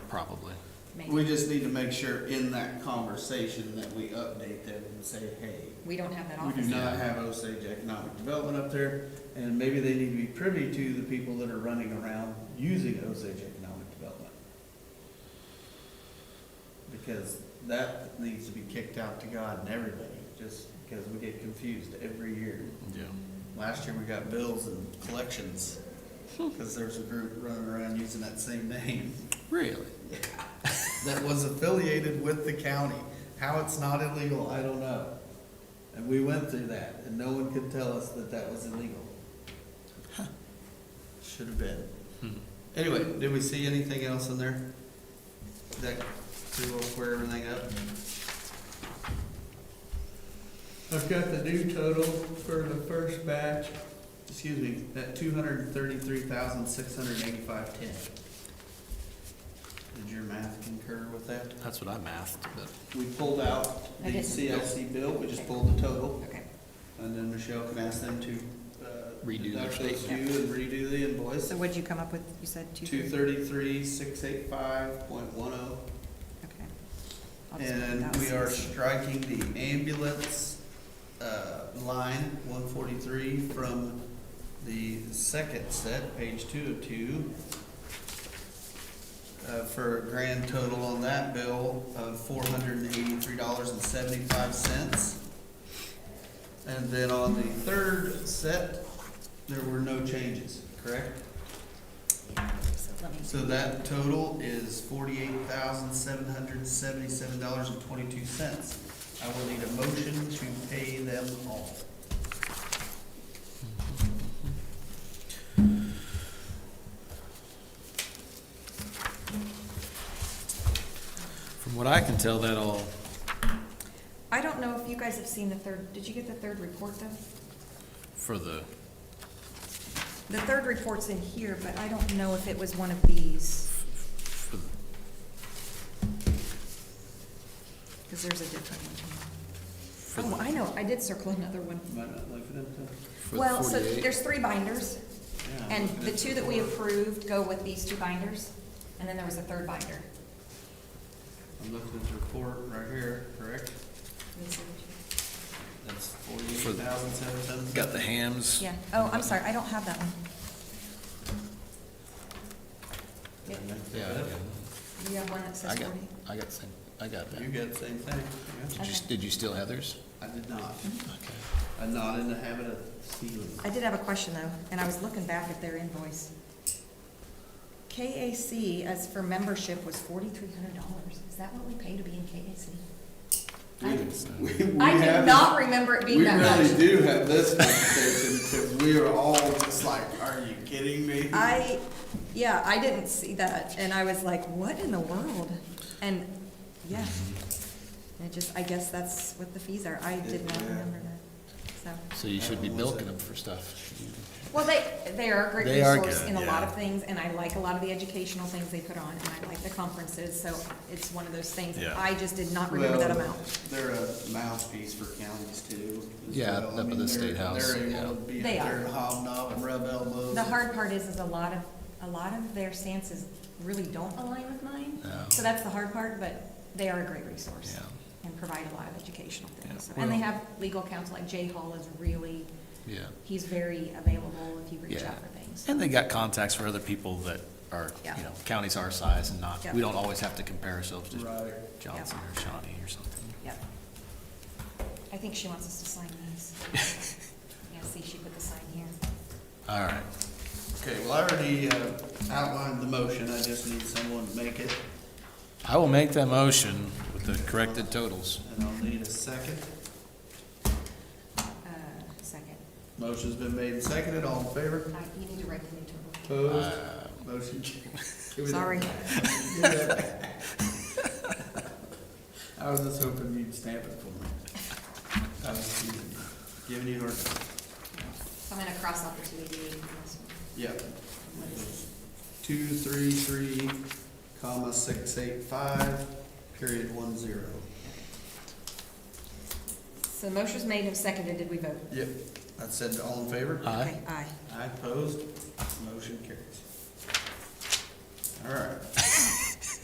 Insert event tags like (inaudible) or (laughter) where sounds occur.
probably. maybe. We just need to make sure in that conversation that we update them and say, hey, We don't have that we do office. not have Osage Economic Development up there, and maybe they need to be privy to the people that are running around using Osage Economic Development. Because that needs to be kicked out to God and everybody, just because we get confused every year. Yeah. Last year, we got bills and collections, because there's a group running around using that same name Really? that was affiliated with the county. How it's not illegal, I don't know. And we went through that, and no one could tell us that that was illegal. Should have been. Hmm. Anyway, did we see anything else in there? That, to square everything up? I've got the new total for the first batch. Excuse me, that two hundred and thirty-three thousand, six hundred and eighty-five ten. Did your math concur with that? That's what I mathed, but We pulled out I the didn't. CLC bill, we just pulled the total. Okay, And then Michelle can ask them to, uh. Redo their deduct those statement. due and redo the invoice. so what'd you come up with? You said two Two thirty? thirty-three, six eight five point one oh. Okay. I'll just put And that we are six. striking the ambulance, uh, line one forty-three from the second set, page two of two. Uh, for a grand total on that bill of four hundred and eighty-three dollars and seventy-five cents. And then on the third set, there were no changes, correct? So let me- So that total is forty-eight thousand, seven hundred and seventy-seven dollars and twenty-two cents. I will need a motion to pay them all. from what I can tell, that all, I don't know if you guys have seen the third, did you get the third report though? for the, The third report's in here, but I don't know if it was one of these, for the because there's a different one. Oh, I know, I did circle another one. Might not look at them till- for the Well, so 48. there's three binders, yeah, I'm and looking the at two that we before. approved go with these two binders, and then there was a third binder. I'm looking at the report right here, correct? That's For forty-eight the- thousand, seven seventy-seven. Got the hams. Yeah, oh, I'm sorry, I don't have that one. Yeah, I got- Do you have one that I says got, forty? I got, same- I got that. You got the same thing, yeah? Did you, Okay. did you steal Heather's? I did not. Mm-hmm. Okay. I'm not in the habit of stealing. I did have a question though, and I was looking back at their invoice. KAC as for membership was forty-three hundred dollars. Is that what we pay to be in KAC? I- I We- we do have- not remember it being We that really much. do have this conversation, because we are all just like, are you kidding me? I, yeah, I didn't see that, and I was like, what in the world? And, yeah. Mm-hmm. And it just, I guess that's what the fees are. I did not Yeah. remember that, so. So you should be milking them for stuff. Well, they, they are a great They are resource good, in a lot yeah. of things, and I like a lot of the educational things they put on, and I like the conferences, so it's one of those things. Yeah. I just did not remember that Well, amount. They're a mouthpiece for counties too. as Yeah, well. I up at mean, the they're- State House, They're yeah. able to be up They there are. and hobnob and rub elbows. The hard part is, is a lot of, a lot of their stances really don't align with mine. No. So that's the hard part, but they are a great resource. Yeah. And provide a lot of educational things. Yeah. And they Well- have legal counsel, like Jay Hall is really, Yeah. he's very available if you reach Yeah. out for things. And they got contacts for other people that are, Yeah. you know, counties our size and not, Yeah. we don't always have to compare ourselves to Right. Johnson or Shawnee or something. Yep. I think she wants us to sign these. (laughs) Yeah, see, she put the sign here. All right. Okay, well, I already uh, outlined the motion, I just need someone to make it, I will make that motion with the corrected totals. and I'll need a second. Uh, Second. Motion's been made and seconded, all in favor? I- You need to write the new total. Opposed? Uh, Motion. (laughs) carries. Give me that. Sorry. Give me that. (laughs) I was just hoping you'd stamp it for me. I was just giving you a hard time. So I'm gonna cross out the two eighty-eight and this one. Yeah. Two, three, three, comma, six, eight, five, period, one, zero. So the motion was made and seconded. Did we vote? Yep. That said, all in favor? Aye. Okay, Aye. I opposed, motion carries. All right.